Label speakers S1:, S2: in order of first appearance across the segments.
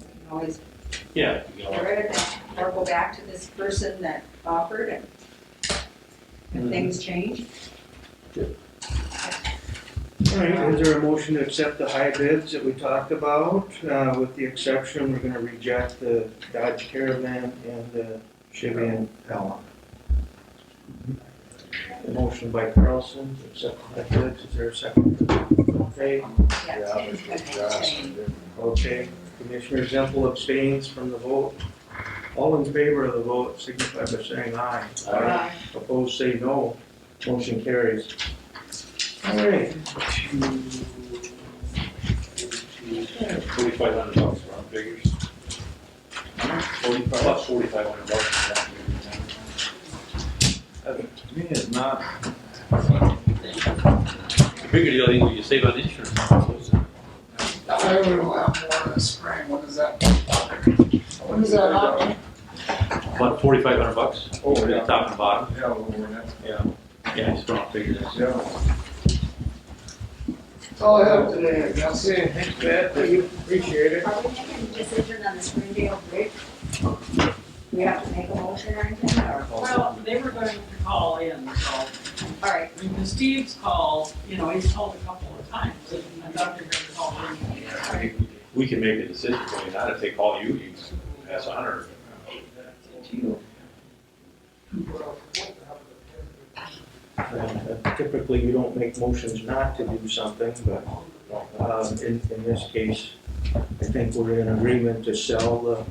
S1: can always
S2: Yeah. you
S1: get
S2: know,
S1: rid of that, or go back to this person that offered and if
S2: Mhm.
S1: things change.
S3: All right, is there a motion to accept the high bids that we talked about, uh, with the exception, we're gonna reject the Dodge Caravan and the Chevy Impala. The motion by Carlson, to accept the high bids, is there a second? Okay,
S1: Yeah, change,
S4: Yeah,
S1: okay,
S4: Josh
S1: change.
S4: and them.
S3: okay, Commissioner Zemple abstains from the vote. All in favor of the vote, signify by saying aye.
S1: Uh,
S3: Opposed, say no. Motion carries. All right.
S2: Forty-five hundred bucks, round figures. Forty-five, about forty-five hundred bucks. round figures.
S4: Uh, To me, it's not,
S2: The bigger deal, I think, you save on insurance.
S5: I would have more this spring, when is that? When is that happen?
S2: About forty-five hundred bucks,
S4: oh,
S2: over the
S4: yeah,
S2: top and bottom.
S4: yeah, over that,
S2: Yeah. Yeah, it's round figures.
S4: yeah.
S5: That's all Oh, I have today, I guess.
S3: Okay, thanks, Pat, we appreciate it.
S1: Uh, Are we making a decision on the Springdale Bridge? We have to make a motion or anything, or,
S6: Well, they were going to call in, so,
S1: all right,
S6: I mean, 'cause Steve's called, you know, he's called a couple of times, and I'm not going to call in.
S2: We can make a decision, I mean, not if they call you, you pass a hundred.
S3: Uh, Typically, you don't make motions not to do something, but uh, in, in this case, I think we're in agreement to sell the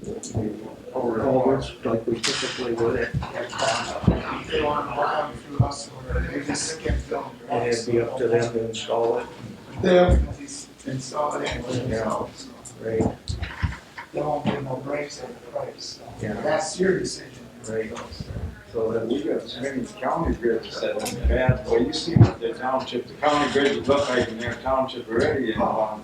S3: the culverts like we typically would,
S5: They want to have through us, or they just can't film.
S3: and it'd be up to them to install it,
S5: They have to install it anyway, so
S3: right?
S5: there won't be no breaks in the price, so
S3: Yeah.
S5: that's your decision.
S3: Right. So
S4: But
S3: that,
S4: we got so many county bridges that are bad, well, you see what the township, the county bridges look like in their township already, and, um,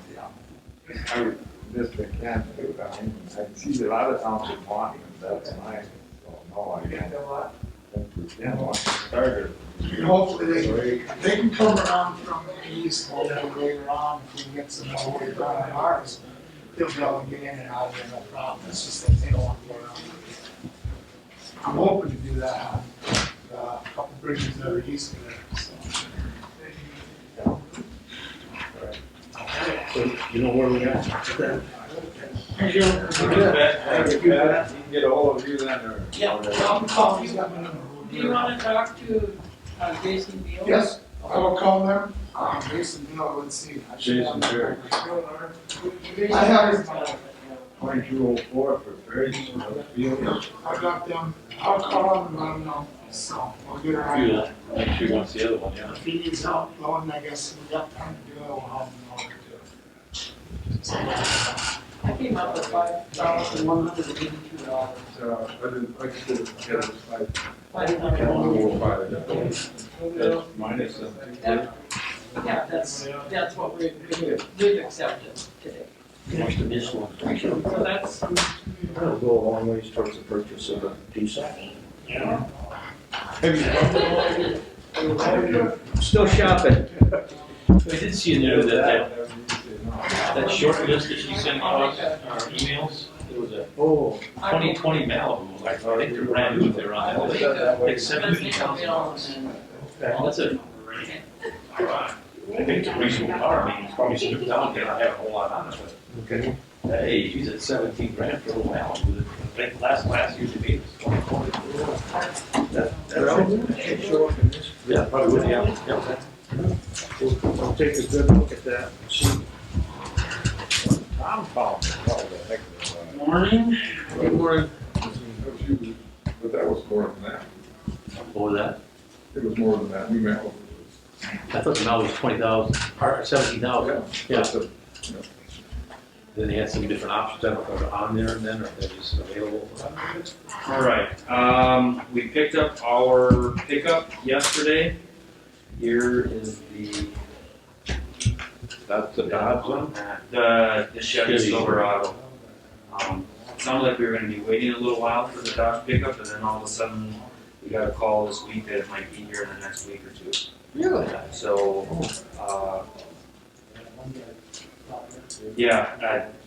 S4: I would, this they can't do, I mean, I see a lot of township wanting, them, that's mine, so, no, I
S5: You
S4: can't.
S5: know what?
S4: Yeah, I want to start it.
S5: And hopefully they, they can come around from the east, hopefully later on, if we can get some more weight on ours, they'll be able to get in and out of there, no problem, it's just that they don't want to go around. I'm hoping to do that, on, uh, a couple bridges that are east of there, so.
S3: so you know where we got that?
S5: Thank you.
S4: Thank you, Pat. You can get ahold of you then, or.
S6: Yeah,
S5: I'll call, he's got my number.
S6: Do you want to talk to uh, Jason Beal?
S5: Yes, I will call them, um, Jason, you know, let's see. I should have
S4: Jason, sure.
S5: them.
S6: Jason-
S5: I have-
S4: Twenty-two oh four for Ferry, Field.
S5: I got them, I'll call them and let them know, so, we'll get around.
S2: You, uh, Make sure you want to see the other one, yeah.
S5: If he needs help, Lauren, I guess we got time to do it, we'll help him out too.
S6: I came up with five thousand one hundred and eighty-two dollars.
S4: So, but it's like, it's, yeah, it's like.
S6: Five
S4: I
S6: hundred
S4: don't know
S6: one.
S4: what about it. That's minus something.
S6: Yeah, that's, that's what we, we- we've accepted today. So that's,
S3: That'll go a long ways towards the purchase of a diesel. Still shopping.
S2: I did see in there that, that, that short list that she sent us, our emails, there was a
S3: Oh,
S6: I
S2: twenty
S6: mean,
S2: twenty Malibu, like, I think they're brand new, they're on that list. Like seven
S6: that's
S2: fifty
S6: Nico
S2: thousand dollars.
S6: Mills and
S2: Well, that's a, I think it's a reasonable car, I mean, it's probably stripped down, they don't have a whole lot on it,
S3: okay.
S2: but hey, she's at seventeen grand for a Malibu, I think last, last year's debate was twenty twenty.
S3: That, that should show up in this.
S2: Yeah, probably would, yeah, yeah.
S3: We'll, we'll take a good look at that, and see
S4: Tom Powell, what the heck is that?
S6: Morning.
S4: Good morning. But that was more than that.
S2: What was that?
S4: It was more than that. We met. over
S2: I thought the Malibu was twenty thousand, or seventeen thousand.
S4: the-
S2: Yeah.
S4: So,
S2: Then they had some different options, I don't know if they're on there and then, or if they're just available.
S7: All right, um, we picked up our pickup yesterday. Here is the,
S4: That's the Dodge one?
S7: the the Chevy
S2: Chevy.
S7: Silverado. Um, it sounded like we were gonna be waiting a little while for the Dodge pickup, and then all of a sudden, we got a call this week that it might be here in the next week or two.
S6: Really?
S7: So, uh, yeah, I,